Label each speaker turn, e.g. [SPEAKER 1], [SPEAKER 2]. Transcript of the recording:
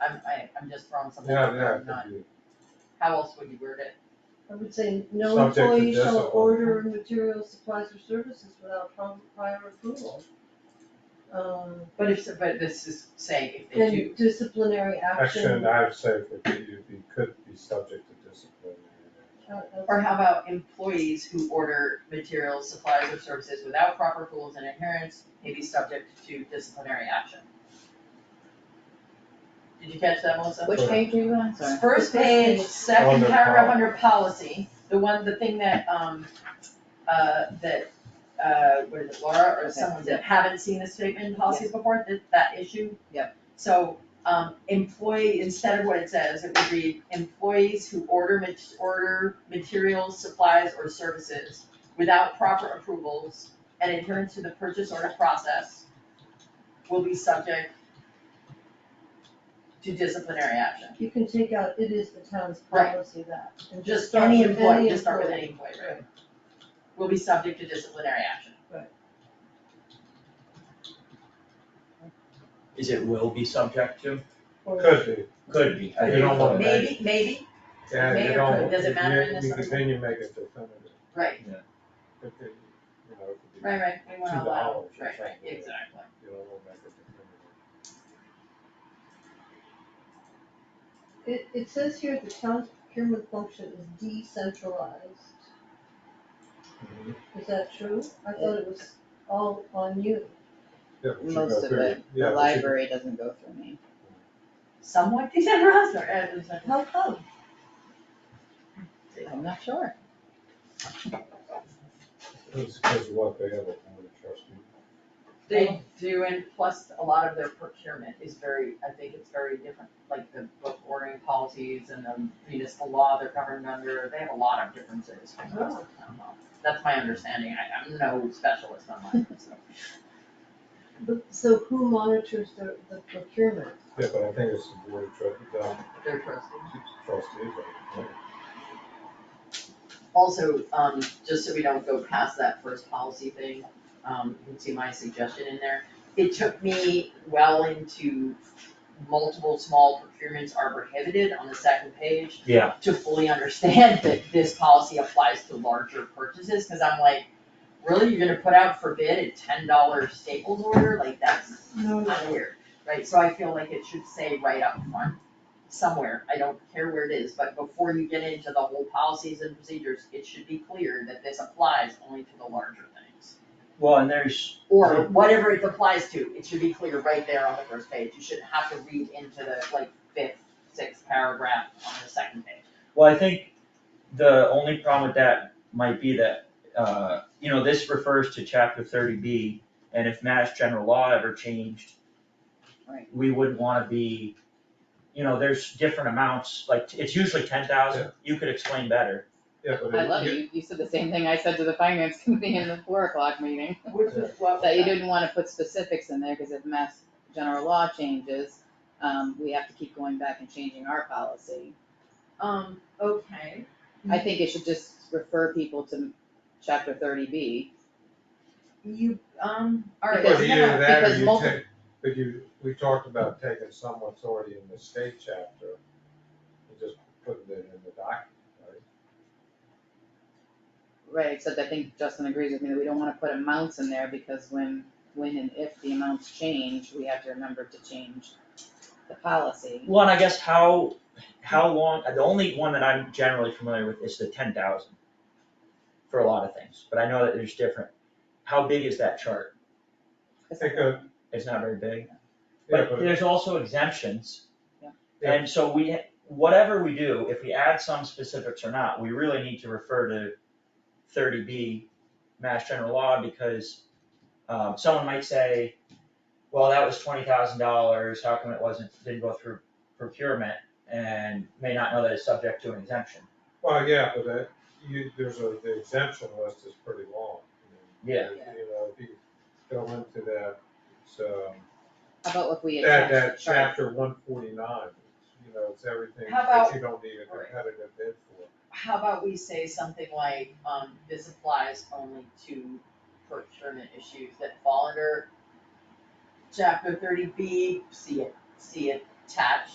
[SPEAKER 1] I'm, I, I'm just throwing something out
[SPEAKER 2] Yeah, yeah,
[SPEAKER 1] there,
[SPEAKER 2] it
[SPEAKER 1] not,
[SPEAKER 2] could be.
[SPEAKER 1] how else would you word it?
[SPEAKER 3] I would say no
[SPEAKER 2] Subject to
[SPEAKER 3] employee shall
[SPEAKER 2] discipline.
[SPEAKER 3] order materials, supplies or services without prom- prior approval. Um,
[SPEAKER 1] But if, but this is saying if they do,
[SPEAKER 3] then disciplinary
[SPEAKER 2] Action,
[SPEAKER 3] action.
[SPEAKER 2] I would say it could be, it could be subject to discipline.
[SPEAKER 3] uh, that's-
[SPEAKER 1] or how about employees who order materials, supplies, or services without proper rules and adherence may be subject to disciplinary action? Did you catch that, Melissa?
[SPEAKER 2] Which page
[SPEAKER 4] are you on?
[SPEAKER 1] It's First page, second
[SPEAKER 2] Under
[SPEAKER 1] paragraph
[SPEAKER 2] policy.
[SPEAKER 1] under policy, the one, the thing that, um, uh, that, uh, what is it, Laura or
[SPEAKER 4] Okay.
[SPEAKER 1] someone that haven't seen this statement in policies before, that, that issue?
[SPEAKER 4] Yep.
[SPEAKER 1] So, um, employee, instead of what it says, it would read employees who order mat- order materials, supplies, or services without proper approvals and adherence to the purchase order process will be subject to disciplinary action.
[SPEAKER 3] You can take out, it is the town's
[SPEAKER 1] Right.
[SPEAKER 3] policy that, and just
[SPEAKER 1] Just
[SPEAKER 3] start
[SPEAKER 1] any
[SPEAKER 3] with
[SPEAKER 1] employee,
[SPEAKER 3] any
[SPEAKER 1] just start with
[SPEAKER 3] employee.
[SPEAKER 1] any employee, right? Will be subject to disciplinary action.
[SPEAKER 5] Is it will be subject to?
[SPEAKER 3] Or-
[SPEAKER 2] Could be,
[SPEAKER 5] Could be.
[SPEAKER 2] You don't wanna make-
[SPEAKER 1] Maybe, maybe,
[SPEAKER 2] yeah,
[SPEAKER 1] May
[SPEAKER 2] you
[SPEAKER 1] or
[SPEAKER 2] don't,
[SPEAKER 1] could, does it
[SPEAKER 2] if
[SPEAKER 1] matter
[SPEAKER 2] you-
[SPEAKER 1] in this
[SPEAKER 2] you-
[SPEAKER 1] sentence?
[SPEAKER 2] Then you make it definitive,
[SPEAKER 1] right,
[SPEAKER 2] It could, you know, it could be,
[SPEAKER 1] right, right, we want to
[SPEAKER 2] Two
[SPEAKER 1] allow,
[SPEAKER 2] dollars or
[SPEAKER 1] right, right,
[SPEAKER 2] something.
[SPEAKER 1] exactly.
[SPEAKER 2] you know, we'll make it definitive.
[SPEAKER 3] It, it says here the town's procurement function is decentralized. Is that true? I thought it was all on you.
[SPEAKER 2] Yeah, we should go
[SPEAKER 4] Most of
[SPEAKER 2] through
[SPEAKER 4] it,
[SPEAKER 2] Yeah, we should-
[SPEAKER 4] the library doesn't go through me.
[SPEAKER 1] Somewhat decentralized, or, uh, it's like-
[SPEAKER 3] How come?
[SPEAKER 4] I'm not sure.
[SPEAKER 2] It's because of what they have a board of trustees.
[SPEAKER 1] they do, and plus a lot of their procurement is very, I think it's very different, like the book ordering policies and the municipal law they're governed under, they have a lot of differences from the rest of the town law. That's my understanding, I, I'm no specialist on that, so.
[SPEAKER 3] But, so who monitors the, the procurement?
[SPEAKER 2] Yeah, but I think it's the board of trustees,
[SPEAKER 1] They're trusted.
[SPEAKER 2] trustees, I think.
[SPEAKER 1] Also, um, just so we don't go past that first policy thing, um, you can see my suggestion in there. It took me well into multiple small procurements are prohibited on the second page
[SPEAKER 5] Yeah.
[SPEAKER 1] to fully understand that this policy applies to larger purchases, cause I'm like, really, you're gonna put out for bid a ten dollar Staples order, like that's
[SPEAKER 3] No.
[SPEAKER 1] kinda weird, right? So I feel like it should say right up front, somewhere, I don't care where it is, but before you get into the whole policies and procedures, it should be clear that this applies only to the larger things.
[SPEAKER 5] Well, and there's,
[SPEAKER 1] Or whatever it applies to, it should be clear right there on the first page, you shouldn't have to read into the like fifth, sixth paragraph on the second page.
[SPEAKER 5] well, I think the only problem with that might be that, uh, you know, this refers to chapter thirty B, and if mass general law ever changed,
[SPEAKER 4] Right.
[SPEAKER 5] we wouldn't wanna be, you know, there's different amounts, like, it's usually ten thousand, you could explain better.
[SPEAKER 2] Yeah, but
[SPEAKER 4] I love
[SPEAKER 2] it-
[SPEAKER 4] you, you said the same thing I said to the finance committee in the four o'clock meeting,
[SPEAKER 1] Which is what.
[SPEAKER 4] that you didn't wanna put specifics in there, cause if mass general law changes, um, we have to keep going back and changing our policy.
[SPEAKER 1] Um, okay,
[SPEAKER 4] I think it should just refer people to chapter thirty B,
[SPEAKER 1] you, um, alright,
[SPEAKER 4] Because-
[SPEAKER 2] Well, either that or
[SPEAKER 4] because
[SPEAKER 2] you
[SPEAKER 4] multi-
[SPEAKER 2] take, but you, we talked about taking someone's already in the state chapter and just putting it in the document, right?
[SPEAKER 4] right, except I think Justin agrees with me that we don't wanna put amounts in there, because when, when and if the amounts change, we have to remember to change the policy.
[SPEAKER 5] Well, and I guess how, how long, the only one that I'm generally familiar with is the ten thousand for a lot of things, but I know that there's different. How big is that chart?
[SPEAKER 2] I think, uh,
[SPEAKER 5] It's not very big,
[SPEAKER 2] yeah,
[SPEAKER 5] but
[SPEAKER 2] but
[SPEAKER 5] there's also exemptions.
[SPEAKER 4] Yeah.
[SPEAKER 2] Yeah.
[SPEAKER 5] And so we, whatever we do, if we add some specifics or not, we really need to refer to thirty B Mass General Law because um, someone might say, well, that was twenty thousand dollars, how come it wasn't, didn't go through procurement? And may not know that it's subject to an exemption.
[SPEAKER 2] well, yeah, but that, you, there's a, the exemption list is pretty long. I mean,
[SPEAKER 5] Yeah.
[SPEAKER 2] You know, if you go into that, it's, um,
[SPEAKER 4] How about if we
[SPEAKER 2] that,
[SPEAKER 4] attach the
[SPEAKER 2] that
[SPEAKER 4] chart?
[SPEAKER 2] chapter one forty-nine, you know, it's everything
[SPEAKER 1] How
[SPEAKER 2] that
[SPEAKER 1] about-
[SPEAKER 2] you don't need a
[SPEAKER 1] Right.
[SPEAKER 2] competitive bid for.
[SPEAKER 1] how about we say something like, um, this applies only to procurement issues that fall under chapter thirty B, see it, see attached